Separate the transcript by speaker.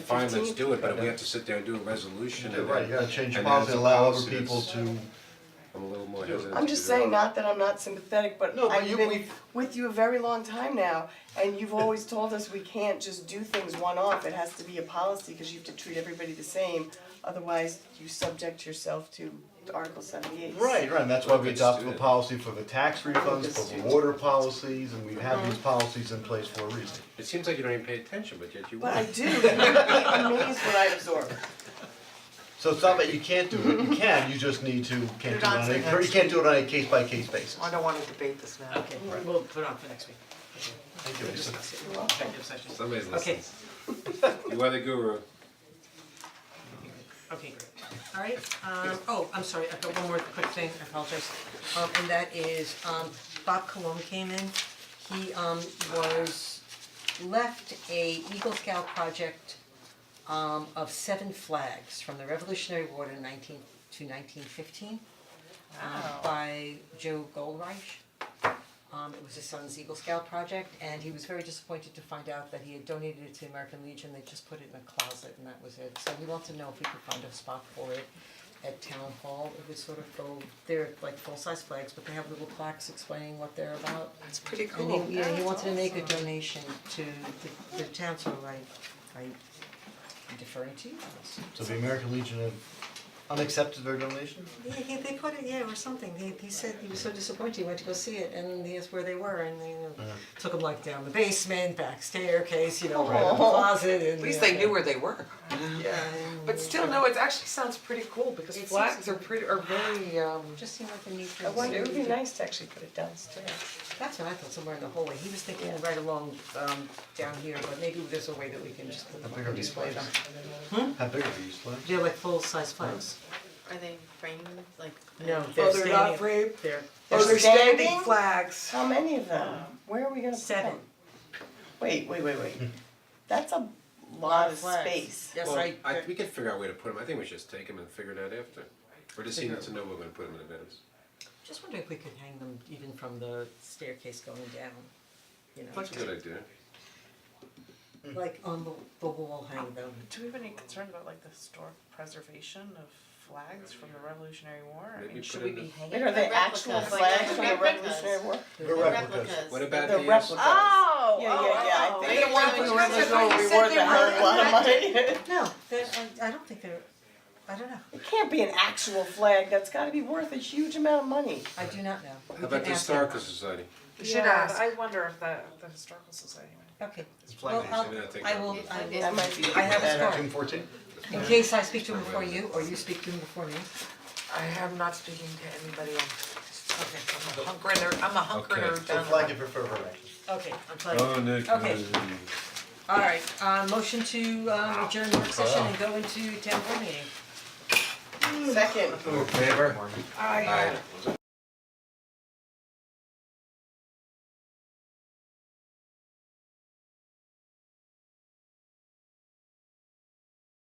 Speaker 1: fine, let's
Speaker 2: 15th?
Speaker 1: do it, but if we have to sit there and do a resolution
Speaker 3: You're
Speaker 1: and
Speaker 3: right, you
Speaker 1: then
Speaker 3: gotta change
Speaker 1: And
Speaker 3: policy,
Speaker 1: there's a
Speaker 3: allow other
Speaker 1: policy
Speaker 3: people
Speaker 1: that's-
Speaker 3: to,
Speaker 1: I'm a little more hesitant.
Speaker 2: I'm
Speaker 1: to
Speaker 2: just
Speaker 1: do that.
Speaker 2: saying, not that I'm not sympathetic, but
Speaker 3: No, but
Speaker 2: I've
Speaker 3: you-
Speaker 2: been
Speaker 3: we-
Speaker 2: with you a very long time now, and you've always told us we can't just do things one-off, it has to be a policy, cause you have to treat everybody the same, otherwise you subject yourself to Article seventy-eight.
Speaker 3: right, right, and that's why we
Speaker 1: Let's
Speaker 3: adopted
Speaker 1: do
Speaker 3: the
Speaker 1: it.
Speaker 3: policy for the tax refunds,
Speaker 2: Let's
Speaker 3: for
Speaker 2: do
Speaker 3: the
Speaker 2: it.
Speaker 3: water policies, and we have these policies in place for a reason.
Speaker 1: It seems like you don't even pay attention, but yet you will.
Speaker 2: But I do, you'd be amazed what I absorb.
Speaker 3: So it's not that you can't do it, you can, you just need to,
Speaker 4: Put
Speaker 3: can't
Speaker 4: it
Speaker 3: do it
Speaker 4: on
Speaker 3: on
Speaker 4: to
Speaker 3: a,
Speaker 4: the
Speaker 3: or you
Speaker 4: next
Speaker 3: can't do it on a case by case basis.
Speaker 4: I don't wanna debate this now.
Speaker 5: Okay, we'll put it on for next week,
Speaker 3: Thank you, Lisa.
Speaker 5: executive session.
Speaker 1: Somebody's
Speaker 5: Okay,
Speaker 1: listening. You are the guru.
Speaker 5: okay, great. Alright, um, oh, I'm sorry, I've got one more quick thing, I apologize. Um, and that is, um, Bob Cologne came in, he, um, was, left a Eagle Scout project um, of seven flags from the Revolutionary War to nineteen, to nineteen fifteen. um, by Joe Goldreich. Um, it was his son's Eagle Scout project, and he was very disappointed to find out that he had donated it to the American Legion, they just put it in a closet and that was it. So we want to know if we could find a spot for it at Town Hall, it would sort of go, they're like full-size flags, but they have little plaques explaining what they're about.
Speaker 4: It's pretty
Speaker 5: And
Speaker 4: cool.
Speaker 5: he, yeah, he wanted to make a donation to the, the town, so I, I I'm deferring to you. on this.
Speaker 3: So the American Legion have unaccepted their donation?
Speaker 5: Yeah, he, they put it, yeah, or something, he, he said he was so disappointed, he went to go see it, and he asked where they were, and they, you know, took him like down the basement, back staircase, you know, right in the
Speaker 2: Aw.
Speaker 5: closet, and.
Speaker 4: Oh. At least they knew where they were.
Speaker 5: Yeah.
Speaker 4: But still, no, it actually sounds pretty cool because
Speaker 5: It seems-
Speaker 4: flags are pretty, are very, um,
Speaker 5: Just seemed like a neat thing.
Speaker 2: I wonder, it
Speaker 5: to
Speaker 2: would be
Speaker 5: do.
Speaker 2: nice to actually put it downstairs.
Speaker 5: That's what I thought, somewhere in the hallway, he was thinking right along, um, down here, but maybe there's a way that we can just put them
Speaker 3: How
Speaker 5: up
Speaker 3: big are
Speaker 5: and
Speaker 3: these
Speaker 5: display
Speaker 3: flags?
Speaker 5: them.
Speaker 1: Hmm?
Speaker 3: How big are these flags?
Speaker 5: They're like full-size flags.
Speaker 6: Are they framed like?
Speaker 5: No,
Speaker 6: uh,
Speaker 5: they're
Speaker 4: Oh, they're not
Speaker 5: standing,
Speaker 4: framed?
Speaker 5: they're,
Speaker 2: They're
Speaker 4: oh, they're standing
Speaker 2: standing?
Speaker 4: flags.
Speaker 2: How many of them? Where are we gonna put them?
Speaker 5: Seven.
Speaker 2: Wait, wait, wait, wait. That's a lot of
Speaker 5: flags.
Speaker 2: space.
Speaker 5: Yes,
Speaker 1: Well,
Speaker 5: I,
Speaker 1: I, we could figure out a way to put them, I think we should just take them and figure it out after. Or just need to know we're gonna put them in advance.
Speaker 5: Just wondering if we could hang them even from the staircase going down, you know,
Speaker 1: That's a good idea.
Speaker 5: like on the the wall hang them.
Speaker 6: Do we have any concern about like the historic preservation of flags from the Revolutionary War? I
Speaker 1: Maybe
Speaker 6: mean, should
Speaker 1: put
Speaker 6: we
Speaker 1: in
Speaker 6: be
Speaker 1: the-
Speaker 6: hanging?
Speaker 2: Wait, are they actual
Speaker 7: replicas, like
Speaker 2: flags from the
Speaker 7: replicas.
Speaker 2: Revolutionary War?
Speaker 3: They're
Speaker 1: What about
Speaker 2: The
Speaker 1: these?
Speaker 2: replicas.
Speaker 6: Oh,
Speaker 2: Yeah, yeah, yeah, I
Speaker 6: oh,
Speaker 2: think.
Speaker 6: oh.
Speaker 2: one
Speaker 6: They
Speaker 2: from the
Speaker 6: were-
Speaker 2: Revolutionary
Speaker 6: they
Speaker 2: War
Speaker 6: said
Speaker 2: that
Speaker 6: they
Speaker 2: had a lot of money.
Speaker 5: No, they're, I I don't think they're, I don't know,
Speaker 2: It can't be an actual flag, that's gotta be worth a huge amount of money.
Speaker 5: I do not know. We
Speaker 1: How
Speaker 5: can
Speaker 1: about the
Speaker 5: ask them.
Speaker 1: Historical Society?
Speaker 6: We should ask. I wonder if the, the historical society would.
Speaker 5: Okay,
Speaker 3: flag
Speaker 5: well,
Speaker 3: days,
Speaker 5: I'll,
Speaker 1: maybe I'll take
Speaker 5: I
Speaker 1: that.
Speaker 5: will, I will.
Speaker 2: That might be
Speaker 5: I have a
Speaker 2: better.
Speaker 5: scar,
Speaker 3: June fourteenth?
Speaker 5: in case I speak to him before you, or you speak to him before me,
Speaker 4: I am not speaking to anybody else.
Speaker 5: okay,
Speaker 4: I'm a hunkerer, I'm a hunkerer
Speaker 1: Okay.
Speaker 3: So
Speaker 4: down the
Speaker 3: flag if you prefer her action.
Speaker 5: okay, I'm sorry.
Speaker 1: Oh,
Speaker 5: Okay. Alright, uh, motion to um adjourn work session and go into town board meeting.
Speaker 1: Oh,
Speaker 2: Second.
Speaker 1: All in favor? Aye.